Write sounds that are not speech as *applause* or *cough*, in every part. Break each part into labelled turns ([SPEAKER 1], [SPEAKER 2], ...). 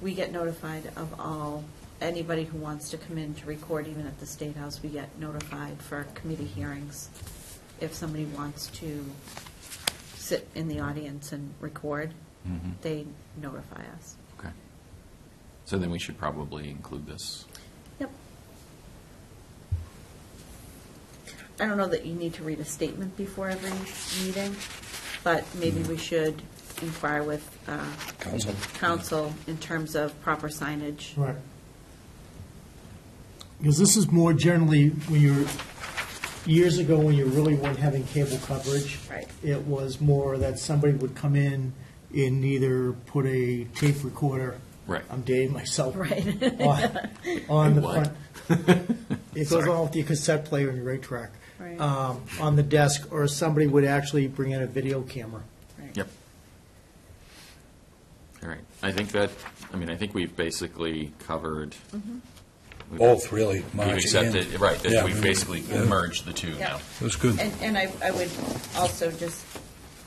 [SPEAKER 1] we get notified of all, anybody who wants to come in to record, even at the State House, we get notified for committee hearings. If somebody wants to sit in the audience and record,
[SPEAKER 2] Mhm.
[SPEAKER 1] they notify us.
[SPEAKER 2] Okay. So then we should probably include this.
[SPEAKER 1] Yep. I don't know that you need to read a statement before every meeting, but maybe we should inquire with uh,
[SPEAKER 3] Council.
[SPEAKER 1] council in terms of proper signage.
[SPEAKER 4] Right. Because this is more generally when you're, years ago, when you really weren't having cable coverage.
[SPEAKER 1] Right.
[SPEAKER 4] It was more that somebody would come in and either put a tape recorder.
[SPEAKER 2] Right.
[SPEAKER 4] I'm dating myself.
[SPEAKER 1] Right.
[SPEAKER 4] *laughs* On, on the
[SPEAKER 2] What?
[SPEAKER 4] front.
[SPEAKER 2] *laughs*
[SPEAKER 4] It goes along with your cassette player and your eight track.
[SPEAKER 1] Right.
[SPEAKER 4] Um, on the desk, or somebody would actually bring in a video camera.
[SPEAKER 1] Right.
[SPEAKER 2] Yep. All right. I think that, I mean, I think we've basically covered. we've-
[SPEAKER 3] Both, really,
[SPEAKER 2] We've
[SPEAKER 3] March and.
[SPEAKER 2] accepted, right,
[SPEAKER 3] Yeah,
[SPEAKER 2] that we've basically merged the two
[SPEAKER 1] Yeah.
[SPEAKER 2] now.
[SPEAKER 3] It was good.
[SPEAKER 1] And, and I, I would also just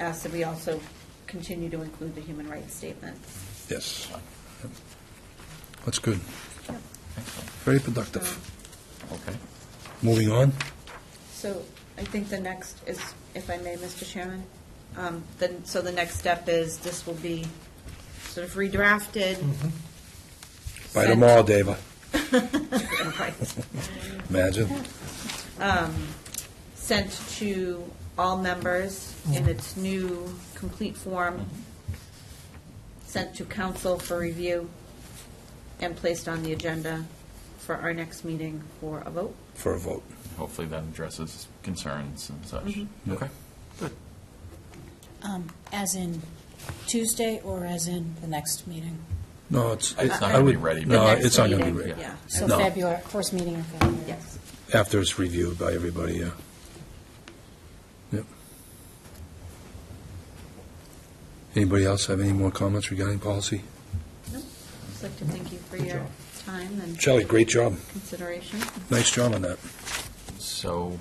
[SPEAKER 1] ask that we also continue to include the human rights statement.
[SPEAKER 3] Yes. That's good.
[SPEAKER 1] Yep.
[SPEAKER 3] Very
[SPEAKER 1] Um,
[SPEAKER 3] productive.
[SPEAKER 2] Okay.
[SPEAKER 3] Moving on.
[SPEAKER 1] So I think the next is, if I may, Mr. Chairman, um, then, so the next step is, this will be sort of redrafted.
[SPEAKER 2] Mm-hmm.
[SPEAKER 3] By
[SPEAKER 1] sent-
[SPEAKER 3] tomorrow, Dava.
[SPEAKER 1] Right.
[SPEAKER 3] Imagine.
[SPEAKER 1] *laughs* Sent to all members in its new complete form, sent to council for review, and placed on the agenda for our next meeting for a vote.
[SPEAKER 3] For a vote.
[SPEAKER 2] Hopefully that addresses concerns and such.
[SPEAKER 3] Yeah.
[SPEAKER 2] Okay.
[SPEAKER 5] Um, As in Tuesday or as in the next meeting?
[SPEAKER 3] No, it's.
[SPEAKER 2] It's not
[SPEAKER 3] I
[SPEAKER 2] gonna be
[SPEAKER 3] would-
[SPEAKER 2] ready,
[SPEAKER 3] No,
[SPEAKER 1] The next
[SPEAKER 3] it's not going to
[SPEAKER 1] meeting,
[SPEAKER 3] be ready.
[SPEAKER 1] Yeah,
[SPEAKER 5] So
[SPEAKER 3] No.
[SPEAKER 5] February, first meeting in February?
[SPEAKER 1] yes.
[SPEAKER 3] After it's reviewed by everybody, yeah. Yep. Anybody else have any more comments regarding policy?
[SPEAKER 1] No, I'd like to thank you for your time and
[SPEAKER 3] Shelley, great job.
[SPEAKER 1] consideration.
[SPEAKER 3] Nice job on that.
[SPEAKER 2] So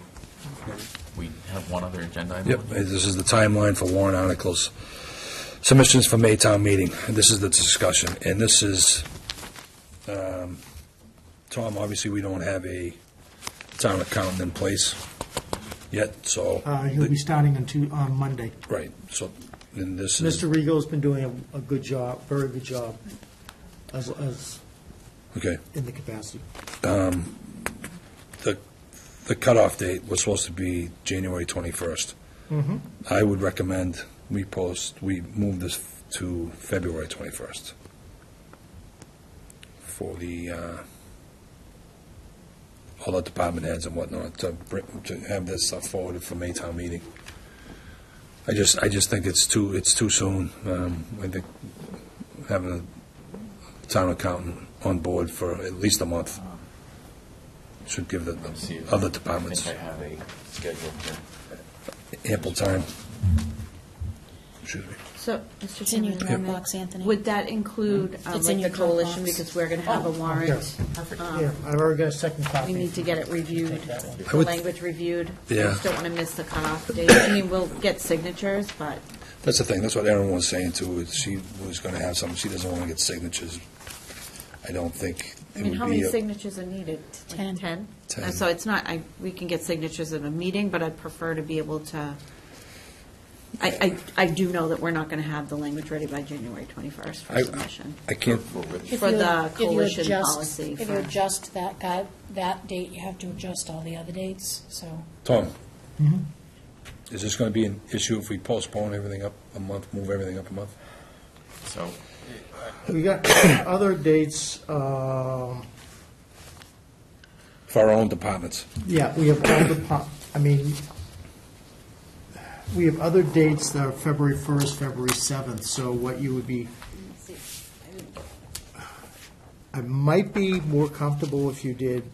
[SPEAKER 2] we have one other agenda item?
[SPEAKER 3] Yep, this is the timeline for warrant articles. Submissions for Maytown meeting, this is the discussion, and this is, um, Tom, obviously, we don't have a town accountant in place yet, so.
[SPEAKER 4] Uh, he'll be starting on Tu- on Monday.
[SPEAKER 3] Right, so, and this is,
[SPEAKER 4] Mr. Rego's been doing a, a good job, very good job, as, as
[SPEAKER 3] okay,
[SPEAKER 4] in the capacity.
[SPEAKER 3] the, the cutoff date was supposed to be January twenty-first. I would recommend we post, we move this to February twenty-first for the, uh, all the department heads and whatnot to, br- to have this stuff forwarded for Maytown meeting. I just, I just think it's too, it's too soon. Um, I think having a town accountant on board for at least a month should give the-
[SPEAKER 2] Let's see
[SPEAKER 3] the
[SPEAKER 2] if-
[SPEAKER 3] other departments
[SPEAKER 2] I think I have a schedule here.
[SPEAKER 3] ample time. Excuse me.
[SPEAKER 1] So, Mr.
[SPEAKER 5] It's in your
[SPEAKER 1] Chairman,
[SPEAKER 5] Dropbox, Anthony.
[SPEAKER 1] would that include um,
[SPEAKER 5] It's in
[SPEAKER 1] like the
[SPEAKER 5] your
[SPEAKER 1] coalition,
[SPEAKER 5] Dropbox.
[SPEAKER 1] because we're going to have a warrant? um,
[SPEAKER 4] Yeah, I've already got a second
[SPEAKER 1] We
[SPEAKER 4] copy.
[SPEAKER 1] need to get it reviewed,
[SPEAKER 4] that one.
[SPEAKER 3] I
[SPEAKER 1] the
[SPEAKER 3] would-
[SPEAKER 1] language reviewed.
[SPEAKER 3] Yeah.
[SPEAKER 1] We just don't want to miss the cutoff date. I mean, we'll get signatures, but,
[SPEAKER 3] That's the thing, that's what Erin was saying too, is she was gonna have some, she doesn't wanna get signatures. I don't think
[SPEAKER 1] I
[SPEAKER 3] it
[SPEAKER 1] mean, how
[SPEAKER 3] would
[SPEAKER 1] many
[SPEAKER 3] be, a-
[SPEAKER 1] signatures are needed? Like
[SPEAKER 5] Ten.
[SPEAKER 1] Ten?
[SPEAKER 3] Ten.
[SPEAKER 1] Uh, So it's not, I, we can get signatures at a meeting, but I'd prefer to be able to, I, I, I do know that we're not going to have the language ready by January 21st for
[SPEAKER 3] I-
[SPEAKER 1] submission.
[SPEAKER 3] I can't,
[SPEAKER 5] If
[SPEAKER 1] For
[SPEAKER 5] you-
[SPEAKER 1] the
[SPEAKER 5] if you
[SPEAKER 1] coalition
[SPEAKER 5] adjust-
[SPEAKER 1] policy
[SPEAKER 5] If
[SPEAKER 1] for-
[SPEAKER 5] you adjust that, guy- that date, you have to adjust all the other dates, so.
[SPEAKER 3] Tom? Is this gonna be an issue if we postpone everything up a month, move everything up a month?
[SPEAKER 2] So
[SPEAKER 4] We got other dates, um,
[SPEAKER 3] For our own departments?
[SPEAKER 4] yeah, we have all the, po- I mean, we have other dates that are February 1st, February 7th, so what you would be, I might be more comfortable if you did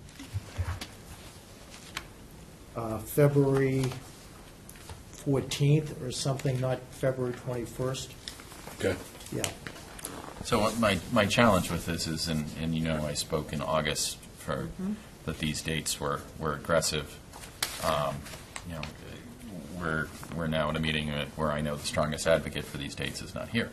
[SPEAKER 4] uh, February 14th or something, not February 21st.
[SPEAKER 3] Okay.
[SPEAKER 4] Yeah.
[SPEAKER 2] So what my, my challenge with this is, and, and you know, I spoke in August for, that these dates were, were aggressive. Um, You know, we're, we're now at a meeting where I know the strongest advocate for these dates is not here.